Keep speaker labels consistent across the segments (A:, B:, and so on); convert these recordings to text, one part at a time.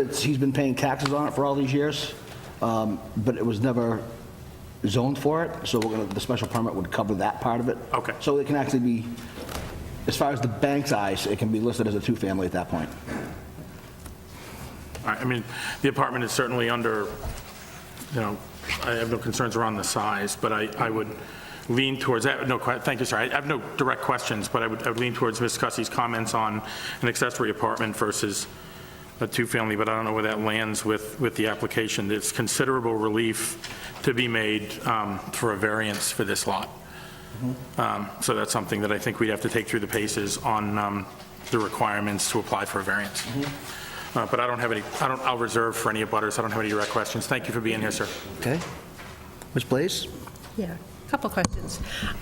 A: It's, he's been paying taxes on it for all these years, um, but it was never zoned for it, so we're gonna, the special permit would cover that part of it.
B: Okay.
A: So it can actually be, as far as the bank's eyes, it can be listed as a two-family at that point.
B: All right, I mean, the apartment is certainly under, you know, I have no concerns around the size, but I, I would lean towards, I have no, que- thank you, sir, I have no direct questions, but I would, I would lean towards Ms. Cussie's comments on an accessory apartment versus a two-family, but I don't know where that lands with, with the application. There's considerable relief to be made um, for a variance for this lot. Um, So that's something that I think we'd have to take through the paces on um, the requirements to apply for a variance. Uh, But I don't have any, I don't, I'll reserve for any abutters. I don't have any direct questions. Thank you for being here, sir.
A: Okay? Ms. Blaze?
C: Yeah, a couple questions.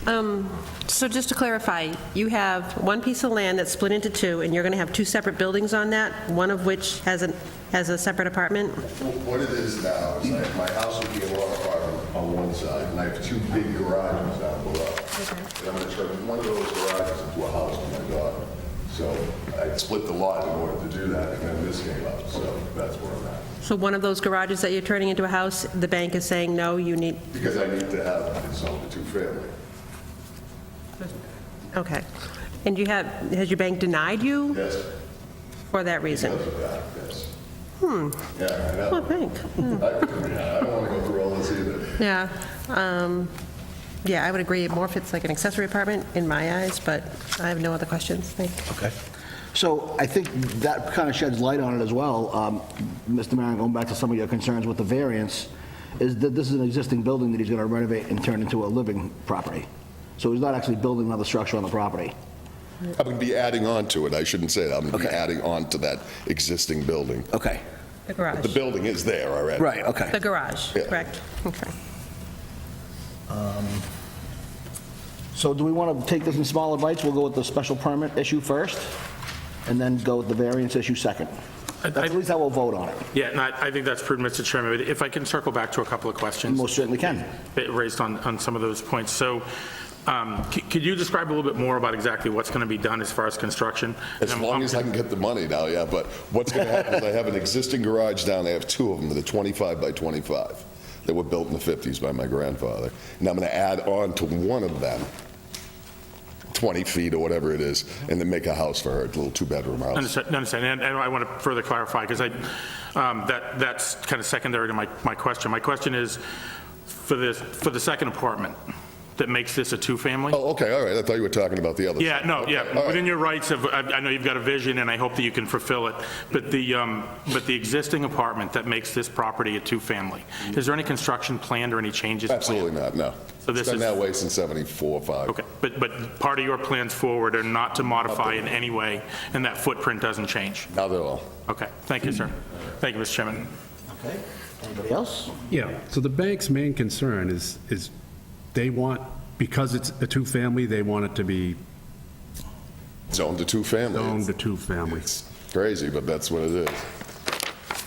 C: Um, So just to clarify, you have one piece of land that's split into two, and you're going to have two separate buildings on that, one of which has an has a separate apartment?
D: What it is now is like my house would be a one apartment on one side, and I have two big garages down below. And I'm gonna turn one of those garages into a house for my daughter. So I split the lot in order to do that, and then this came up, so that's where I'm at.
C: So one of those garages that you're turning into a house, the bank is saying, no, you need,
D: Because I need to have it sold to two-family.
C: okay. And you have, has your bank denied you
D: Yes,
C: for that reason?
D: because of that, yes. Hmm. Yeah, I know.
C: Well, bank,
D: I don't wanna go through all this either.
C: yeah. um, Yeah, I would agree, more if it's like an accessory apartment in my eyes, but I have no other questions, thank you.
A: Okay. So I think that kind of sheds light on it as well. Um, Mr. Maron, going back to some of your concerns with the variance, is that this is an existing building that he's going to renovate and turn into a living property. So he's not actually building another structure on the property.
D: I'm gonna be adding on to it, I shouldn't say that, I'm gonna be adding on to that existing building.
A: Okay,
C: The
D: The
C: garage,
D: building is there already.
A: Oh. right, okay.
C: the garage,
D: Yeah.
C: correct? Okay.
A: So do we want to take this in smaller bites? We'll go with the special permit issue first, and then go with the variance issue second.
B: I- I-
A: That's at least how we'll vote on it.
B: Yeah, and I I think that's prudent, Mr. Chairman. But If I can circle back to a couple of questions
A: Most certainly can.
B: that raised on, on some of those points. So um, c- could you describe a little bit more about exactly what's going to be done as far as construction?
D: As long as I can get the money now, yeah, but what's going to happen is I have an existing garage down, I have two of them, that are 25 by 25, that were built in the 50s by my grandfather, and I'm going to add on to one of them, 20 feet or whatever it is, and then make a house for her, a little two-bedroom house.
B: Understood, understand, and and I want to further clarify, because I, um, that, that's kind of secondary to my, my question. My question is, for this, for the second apartment that makes this a two-family?
D: Oh, okay, all right, I thought you were talking about the other.
B: Yeah, no,
D: Okay, all
B: yeah,
D: right.
B: within your rights of, I I know you've got a vision, and I hope that you can fulfill it, but the, um, but the existing apartment that makes this property a two-family, is there any construction planned or any changes? planned?
D: Absolutely not, no.
B: So this
D: It's been
B: is-
D: that way since 74, 5.
B: Okay, but, but part of your plans forward are not to modify in any way, and that footprint doesn't change?
D: Now they're all.
B: Okay, thank you, sir. Thank you, Mr. Chairman.
A: Anybody else?
E: Yeah, so the bank's main concern is, is they want, because it's a two-family, they want it to be
D: Zoned to two-family.
E: owned to two-family.
D: It's crazy, but that's what it is.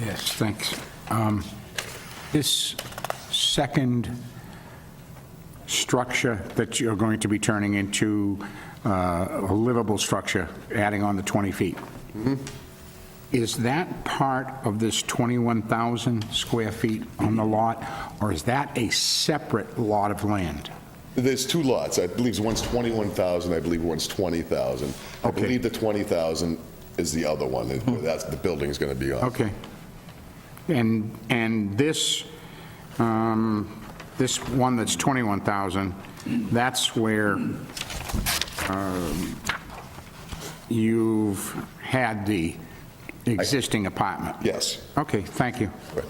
F: Yes, thanks. Um, This second structure that you're going to be turning into uh, a livable structure, adding on the 20 feet, is that part of this 21,000 square feet on the lot, or is that a separate lot of land?
D: There's two lots. I believe one's 21,000, I believe one's 20,000. I
F: Okay. Hmm.
D: believe the 20,000 is the other one, that- that's, the building's going to be on.
F: Okay. And, and this, um, this one that's 21,000, that's where um, you've had the existing apartment?
D: Yes.
F: Okay, thank you.
D: Right.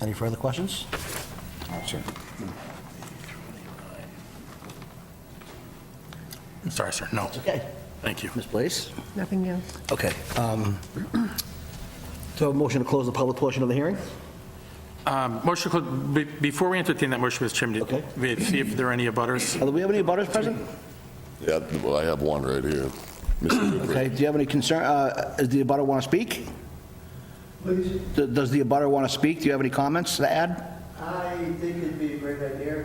A: Any further questions?
B: I'm sorry, sir, no.
A: Okay.
B: Thank you.
A: Ms. Blaze?
C: Nothing new.
A: Okay. um, So a motion to close the public portion of the hearing?
B: Um, Motion, to clo- be- before we entertain that motion, Mr. Chairman,
A: Okay.
B: did we see if there are any abutters?
A: Uh, Do we have any abutters present?
D: Yeah, well, I have one right here. Mr. Dupree.
A: Okay, do you have any concern, uh, does the abutter want to speak? Please? Does the abutter want to speak? Do you have any comments to add?
G: I think it'd be a great idea.